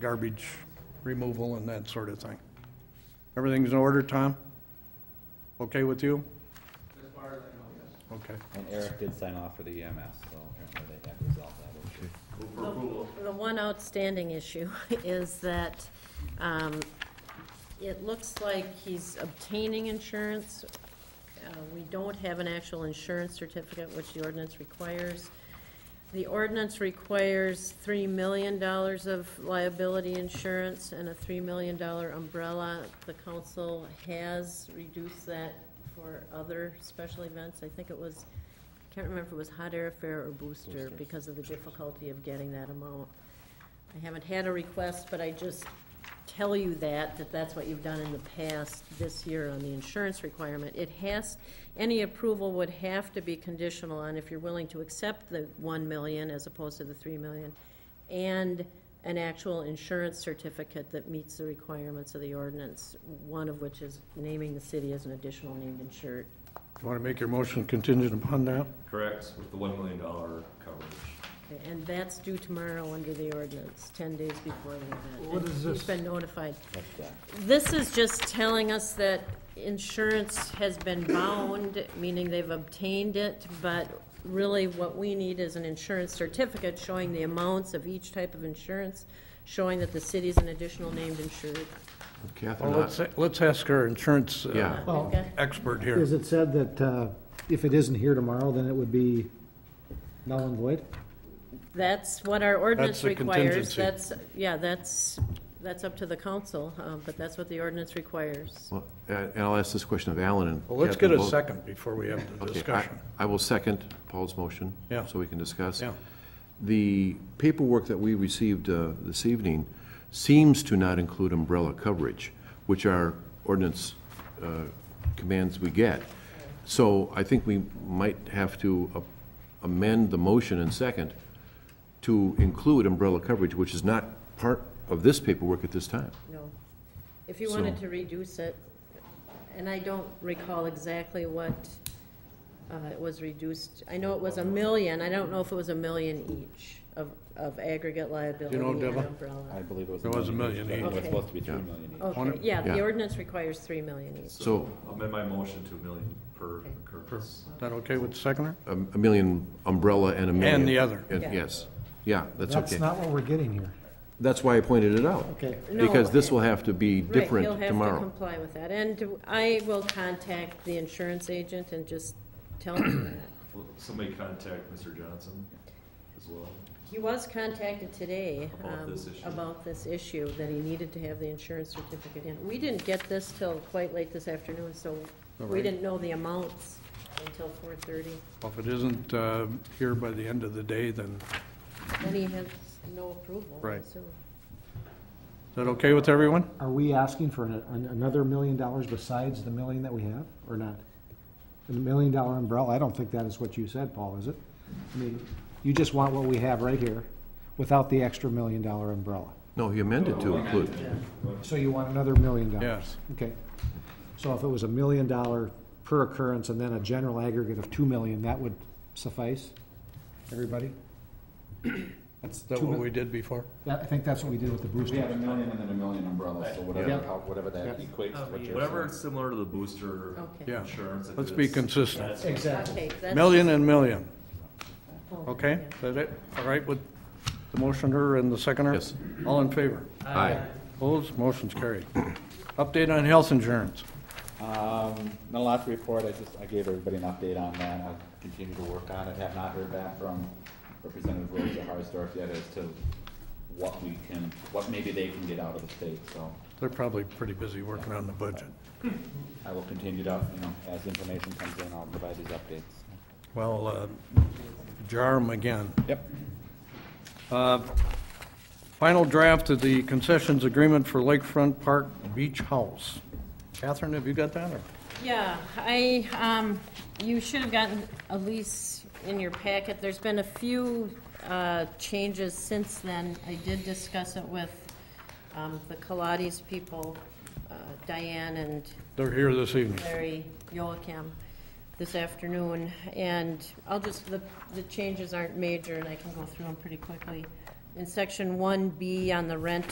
garbage removal and that sort of thing. Everything's in order, Tom? Okay with you? Okay. And Eric did sign off for the EMS, so apparently they have resolved that issue. The one outstanding issue is that um, it looks like he's obtaining insurance. Uh, We don't have an actual insurance certificate, which the ordinance requires. The ordinance requires $3 million of liability insurance and a $3 million umbrella. The council has reduced that for other special events. I think it was, I can't remember if it was hot air affair or booster because of the difficulty of getting that amount. I haven't had a request, but I just tell you that, that that's what you've done in the past this year on the insurance requirement. It has, any approval would have to be conditional on if you're willing to accept the one million as opposed to the three million, and an actual insurance certificate that meets the requirements of the ordinance, one of which is naming the city as an additional named insured. You want to make your motion contingent upon that? Correct, with the one million dollar coverage. Okay, And that's due tomorrow under the ordinance, ten days before the event. What is this? You've been notified. That's that. This is just telling us that insurance has been bound, meaning they've obtained it, but really what we need is an insurance certificate showing the amounts of each type of insurance, showing that the city's an additional named insured. Well, Catherine, let's, I- let's ask our insurance uh, Yeah. Well- Okay? expert here. Is it said that uh, if it isn't here tomorrow, then it would be null and void? That's what our ordinance That's the requires. contingency. That's, yeah, that's, that's up to the council, uh, but that's what the ordinance requires. well, uh, and and I'll ask this question of Alan and. Well, let's get Catherine a both. second before we have the Okay, I- discussion. I will second Paul's motion. Yeah. So we can discuss. Yeah. The paperwork that we received uh, this evening seems to not include umbrella coverage, which our ordinance uh, commands we get. So I think we might have to a- amend the motion and second to include umbrella coverage, which is not part of this paperwork at this time. No. If you wanted So- to reduce it, and I don't recall exactly what uh, it was reduced, I know it was a million, I don't know if it was a million each of, of aggregate liability know, and Deborah? uh, I umbrella. believe it was. It was a each, million but It was each. supposed to be three Okay. million each. Okay, yeah, the Yeah. ordinance requires three million each. So Amend my motion to a million per Okay. occurrence. Is that okay with the seconder? a a million umbrella and a million. And the other. and- Yeah. Yes, yeah, that's okay. That's not what we're getting here. That's why I pointed it out. Okay. No, Because this will have to be different Right, he'll have to tomorrow. comply with that, and I will contact the insurance agent and just tell him that. Will somebody contact Mr. Johnson as well? He was contacted today. About um, this issue. About this issue, that he needed to have the insurance certificate in. We didn't get this till quite late this afternoon, so we didn't know the amounts until four thirty. Well, If it isn't uh, here by the end of the day, then, is Then he has no approval. I Right. assume. that okay with everyone? Are we asking for an- an- another million dollars besides the million that we have, or not? The million dollar umbrella, I don't think that is what you said, Paul, is it? I mean, you just want what we have right here, without the extra million dollar umbrella. No, he amended to include, So you want another million dollars? Yes. Okay. So if it was a million dollar per occurrence and then a general aggregate of two million, that would suffice? Everybody? That's Is that two what mil- we did before? that- I think that's what we did with the We have a Brewster. million and then a million umbrella, so whatever, Yeah. how- whatever that equates to what you're Whatever saying. is similar to the booster Okay. Yeah. insurance. if Let's be it's- consistent. Exactly. Okay, that's. Million and million, oh, okay? yeah. Is that it? All right with the motioner and the seconder? Yes. All in favor? aye. Opposed? Motion's carried. Update on health insurance. Um, not a lot to report, I just, I gave everybody an update on that, I'll continue to work on it, have not heard back from Representative Rosa Harsdorf yet as to what we can, what maybe they can get out of the state, so They're probably pretty busy working on the budget. I will continue to, you know, as information comes in, I'll provide these updates. Well, uh, jar 'em again. Yep. Uh, Final draft of the concessions agreement for Lakefront Park Beach House. Catherine, have you got that? or- Yeah, I, um, you should have gotten a lease in your packet. There's been a few, uh, changes since then. I did discuss it with, um, the Colades people, uh, Diane and They're here this evening. Larry Yoakim this afternoon, and I'll just, the, the changes aren't major, and I can go through them pretty quickly. In section one B on the rent